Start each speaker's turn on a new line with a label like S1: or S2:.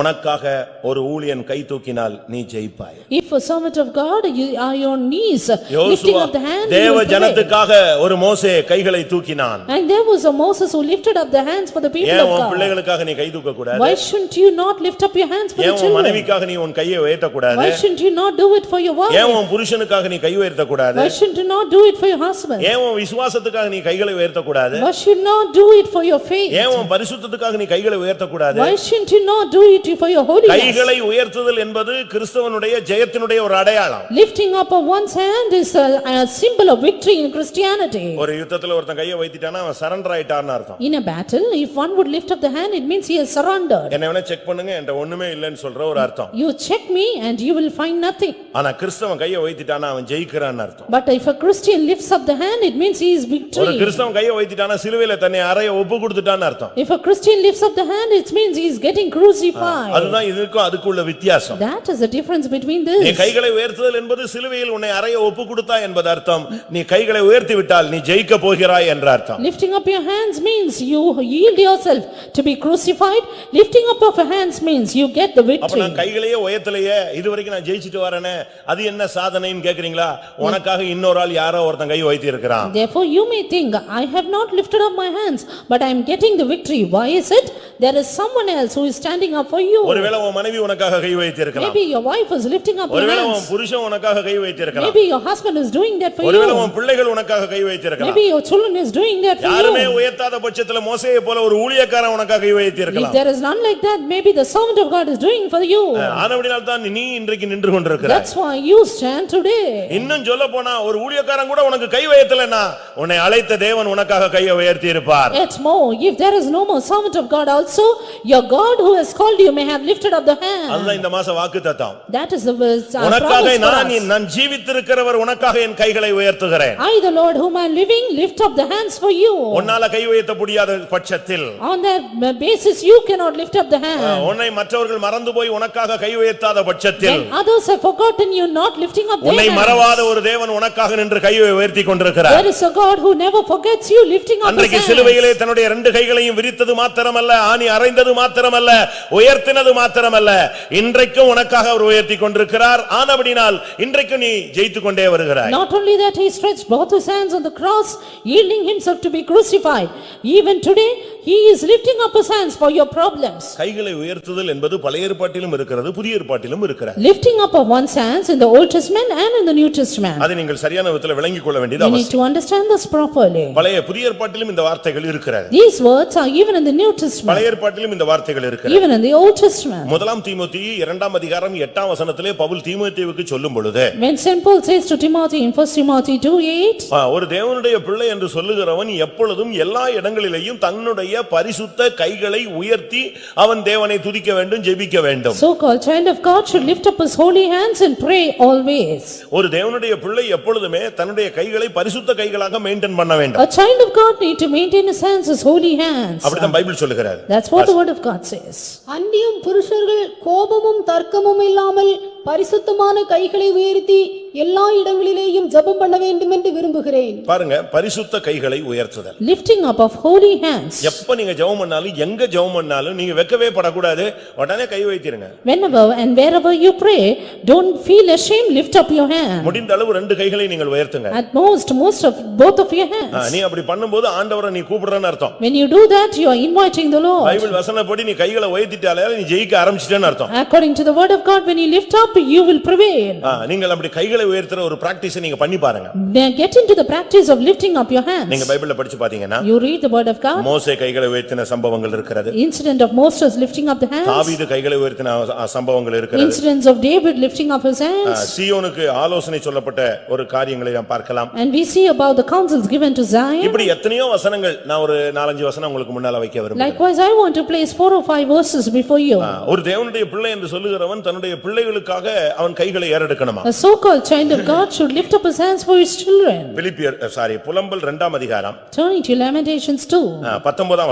S1: உனக்காக ஒரு ஊழியன் கை தூக்கினால் நீ ஜெயிப்பாய்
S2: If a servant of God, you are on knees, lifting
S1: Joshua
S2: up the hand. you
S1: தேவ
S2: will pray.
S1: ஜனத்துக்காக ஒரு மோசே கைகளை தூக்கினான்
S2: And there was a Moses who lifted up the hands for the people
S1: ஏன்
S2: of
S1: உன்
S2: God.
S1: பிள்ளைகளுக்காக நீ கை தூக்க கூடாது
S2: Why shouldn't you not lift up your hands for the
S1: ஏன் உன்
S2: children?
S1: மனைவிக்காக நீ உன் கையை உயர்த்த கூடாது
S2: Why shouldn't you not do it for your
S1: ஏன்
S2: wife?
S1: உன் புருஷனுக்காக நீ கை உயர்த்த கூடாது
S2: Why shouldn't you not do it for your husband?
S1: ஏன் உன் விசுவாசத்துக்காக நீ கைகளை உயர்த்த கூடாது
S2: Why should not do it for your faith?
S1: ஏன் உன் பரிசுத்தத்துக்காக நீ கைகளை உயர்த்த கூடாது
S2: Why shouldn't you not do it for your holiness?
S1: கைகளை உயர்த்துதல் என்பது கிறிஸ்தவனுடைய ஜெயத்தினுடைய ஒரு அடையாளம்
S2: Lifting up of one's hand is a a symbol of victory in Christianity.
S1: ஒரு யுத்தத்துல ஒருத்தன் கையை வைத்திட்டானா அவன் சரண்டர் ஆயிட்டான்னு அர்த்தம்
S2: In a battle, if one would lift up the hand, it means he has surrendered.
S1: என்ன வேணா செக் பண்ணுங்க என்கிட்ட ஒண்ணுமே இல்லைன்னு சொல்ற ஒரு அர்த்தம்
S2: You check me and you will find nothing.
S1: ஆனா கிறிஸ்தவன் கையை வைத்திட்டானா அவன் ஜெயிக்கிறான்னு அர்த்தம்
S2: But if a Christian lifts up the hand, it means he is
S1: ஒரு
S2: victory.
S1: கிறிஸ்தவன் கையை வைத்திட்டானா சிலுவையில தன்னை அறைய ஒப்பு கொடுத்துட்டான்னு அர்த்தம்
S2: If a Christian lifts up the hand, it means he is getting crucified.
S1: அதுதான் இதுக்கும் அதுக்குள்ள வித்தியாசம்
S2: That is the difference between
S1: நீ
S2: this.
S1: கைகளை உயர்த்துதல் என்பது சிலுவையில் உன்னை அறைய ஒப்பு கொடுத்தா என்பது அர்த்தம் நீ கைகளை உயர்த்தி விட்டால் நீ ஜெயிக்க போகிறாய் என்ற அர்த்தம்
S2: Lifting up your hands means you yield yourself to be crucified. Lifting up of your hands means you get the
S1: அப்ப
S2: victory.
S1: நான் கைகளையே உயர்த்தலையே இதுவரைக்கும் நான் ஜெயிச்சிட்டு வரேனே அது என்ன சாதனைன்னு கேக்குறீங்களா உனக்காக இன்னொரு ஆள் யாரோ ஒருத்தன் கை வைத்தி இருக்கிறான்
S2: Therefore you may think, I have not lifted up my hands, but I am getting the victory. Why is it? There is someone else who is standing up for you.
S1: ஒருவேளை உன் மனைவி உனக்காக கை வைத்தி இருக்கலாம்
S2: Maybe your wife is lifting up her
S1: ஒருவேளை
S2: hands.
S1: உன் புருஷன் உனக்காக கை வைத்தி இருக்கலாம்
S2: Maybe your husband is doing that for
S1: ஒருவேளை
S2: you.
S1: உன் பிள்ளைகள் உனக்காக கை வைத்தி இருக்கலாம்
S2: Maybe your children is doing that for
S1: யாருமே
S2: you.
S1: உயர்த்தாத பட்சத்துல மோசையை போல ஒரு ஊழியக்காரன் உனக்காக கை வைத்தி
S2: If
S1: இருக்கலாம்
S2: there is none like that, maybe the servant of God is doing for you.
S1: ஆனபடினால் தான் நீ இன்றைக்கு நின்று கொண்டிருக்கிறாய்
S2: That's why you stand today.
S1: இன்னும் சொல்ல போனா ஒரு ஊழியக்காரன் கூட உனக்கு கை வைத்தலனா உன்னை அழைத்த தேவன் உனக்காக கையை உயர்த்தி இருப்பார்
S2: Yet more, if there is no more servant of God also, your God who has called you may have lifted up the hand.
S1: அதுதான் இந்த மாச வாக்குத்தத்தம்
S2: That is the verse, uh,
S1: உனக்காக
S2: promise for
S1: நான்
S2: us.
S1: என்- நான் ஜீவித்திருக்கிறவர் உனக்காக என் கைகளை உயர்த்துகிறேன்
S2: I, the Lord whom I am living, lift up the hands for you.
S1: உன்னால கை உயர்த்த முடியாத பட்சத்தில் uh,
S2: On that basis, you cannot lift up the hand.
S1: உன்னை மற்றவர்கள் மறந்து போய் உனக்காக கை உயர்த்தாத பட்சத்தில்
S2: When others have forgotten you not lifting up
S1: உன்னை
S2: their hands.
S1: மறவாத ஒரு தேவன் உனக்காக நின்று கையை உயர்த்தி கொண்டிருக்கிறார்
S2: There is a God who never forgets you lifting up his
S1: அன்றைக்கு
S2: hands.
S1: சிலுவையிலே தன்னுடைய ரெண்டு கைகளையும் விரித்தது மாத்திரமல்ல ஆணி அறைந்தது மாத்திரமல்ல உயர்த்தினது மாத்திரமல்ல இன்றைக்கும் உனக்காக அவர் உயர்த்தி கொண்டிருக்கிறார் ஆனபடினால் இன்றைக்கும் நீ ஜெயித்துக் கொண்டே வருகிறாய்
S2: Not only that, he stretched both his hands on the cross, yielding himself to be crucified. Even today, he is lifting up his hands for your problems.
S1: கைகளை உயர்த்துதல் என்பது பழைய ஏற்பாட்டிலும் இருக்கிறது புதிய ஏற்பாட்டிலும் இருக்கிறது
S2: Lifting up of one's hands in the Old Testament and in the New Testament.
S1: அதை நீங்கள் சரியான விதத்தில் விளங்கிக் கொள்ள வேண்டியது
S2: We
S1: அவசியம்
S2: need to understand this properly.
S1: பழைய புதிய ஏற்பாட்டிலும் இந்த வார்த்தைகள் இருக்கிறது
S2: These words are even in the New Testament,
S1: பழைய ஏற்பாட்டிலும் இந்த வார்த்தைகள் இருக்கிறது
S2: even in the Old Testament.
S1: முதலாம் தீமோத்தி இரண்டாம் அதிகாரம் எட்டாம் வசனத்திலே பவுல் தீமோத்தேவுக்கு சொல்லும் பொழுது
S2: When Saint Paul says to Timothy in 1 Timothy two eight,
S1: ஆ, ஒரு தேவனுடைய பிள்ளை என்று சொல்லுகிறவன் எப்பொழுதும் எல்லா இடங்களிலேயும் தன்னுடைய பரிசுத்த கைகளை உயர்த்தி அவன் தேவனை துதிக்க வேண்டும் ஜெபிக்க வேண்டும்
S2: so-called child of God should lift up his holy hands and pray always.
S1: ஒரு தேவனுடைய பிள்ளை எப்பொழுதுமே தன்னுடைய கைகளை பரிசுத்த கைகளாக மெயின்டைன் பண்ண வேண்டும்
S2: A child of God need to maintain his hands, his holy hands.
S1: அப்படிதான் பைபிள் சொல்லுகிறார்
S2: That's what the word of God says.
S3: அந்நியும் புருஷர்கள் கோபமும் தர்க்கமும் இல்லாமல் பரிசுத்தமான கைகளை உயர்த்தி எல்லா இடங்களிலேயும் ஜெபம் பண்ண வேண்டும் என்று விரும்புகிறேன்
S1: பாருங்க பரிசுத்த கைகளை உயர்த்துதல்
S2: Lifting up of holy hands.
S1: எப்ப நீங்க ஜெபம் பண்ணாலும் எங்க ஜெபம் பண்ணாலும் நீங்க வெட்கவே படக்கூடாது உடனே கை வைத்திருங்க
S2: Whenever and wherever you pray, don't feel ashamed, lift up your hand.
S1: முடிந்த அளவு ரெண்டு கைகளை நீங்கள் உயர்த்துங்க
S2: At most, most of, both of your
S1: ah,
S2: hands.
S1: நீ அப்படி பண்ணும்போது ஆண்டவரை நீ கூப்பிடுறன்னு அர்த்தம்
S2: When you do that, you are inviting the Lord.
S1: Bible வசனப்படி நீ கைகளை உயர்த்திட்டாலே நீ ஜெயிக்க ஆரம்பிச்சிட்டேன்னு அர்த்தம்
S2: According to the word of God, when you lift up, you will prevail.
S1: ஆ, நீங்கள் அப்படி கைகளை உயர்த்துற ஒரு பிராக்டிஸ் நீங்க பண்ணி பாருங்க
S2: Now Get into the practice of lifting up your hands.
S1: நீங்க பைபிள்ல படிச்சு பாத்தீங்கன்னா
S2: You read the word of God,
S1: மோசே கைகளை உயர்த்தின சம்பவங்கள் இருக்கிறது
S2: incident of Moses lifting up the hands,
S1: தாவீது கைகளை உயர்த்தின அ- அ- சம்பவங்கள் இருக்கிறது
S2: incidents of David lifting up his
S1: ah,
S2: hands.
S1: சீயோனுக்கு ஆலோசனை சொல்லப்பட்ட ஒரு காரியங்களை நாம் பார்க்கலாம்
S2: And we see about the counsels given to Zion.
S1: இப்படி எத்தனையோ வசனங்கள் நான் ஒரு நாலஞ்சு வசனம் உங்களுக்கு முன்னால வைக்க விரும்புகிறேன்
S2: Likewise, I want to place four or five verses before you.
S1: ஆ, ஒரு தேவனுடைய பிள்ளை என்று சொல்லுகிறவன் தன்னுடைய பிள்ளைகளுக்காக அவன் கைகளை ஏறெடுக்கணுமா
S2: A so-called child of God should lift up his hands for his children.
S1: பிலிப்பியர் சாரி புலம்பல் இரண்டாம் அதிகாரம்
S2: Turning to Lamentations 2.
S1: ஆ, பத்தொன்பதாம்